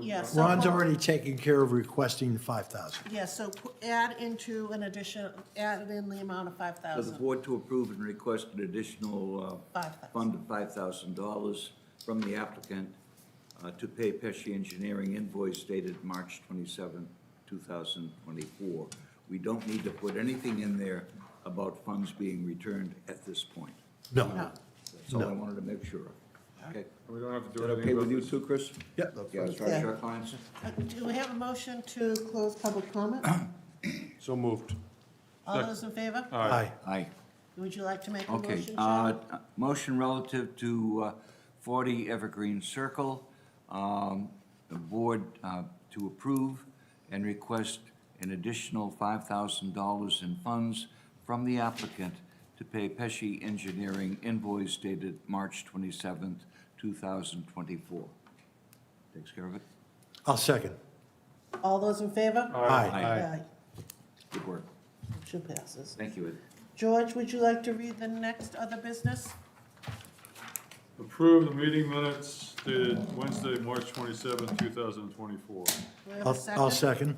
Yeah, so Ron's hold- already taken care of requesting the five thousand. Yeah, so p- add into an addition, add in the amount of five For the thousand. board to approve and request an additional uh, Five thousand. fund of $5,000 from the applicant uh, to pay Pesci Engineering invoice dated March 27, 2024. We don't need to put anything in there about funds being returned at this point. No. That's all I wanted to make sure of. Okay? We don't have to Is do that anything. okay with about you this. too, Chris? Yep. Yeah, as far as our clients? Uh, Do we have a motion to close public comment? Uh-huh. So moved. All those in favor? Aye. Aye. Would you like to make a motion, Okay, Jim? uh, motion relative to uh, 40 Evergreen Circle. um, The board uh, to approve and request an additional $5,000 in funds from the applicant to pay Pesci Engineering invoice dated March 27th, 2024. Takes care of it? I'll second. All those in favor? Aye. Aye. Good work. Motion passes. Thank you, Ed. George, would you like to read the next other business? Approve the meeting minutes dated Wednesday, March twenty-seventh, two thousand and twenty-four. Do we have a I'll, I'll second.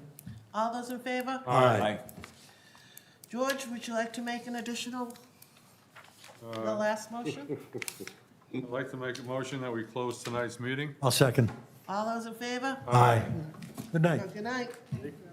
All those in favor? Aye. George, would you like to make an additional, the Uh, last motion? I'd like to make a motion that we close tonight's meeting. I'll second. All those in favor? Aye. Good night. Good night.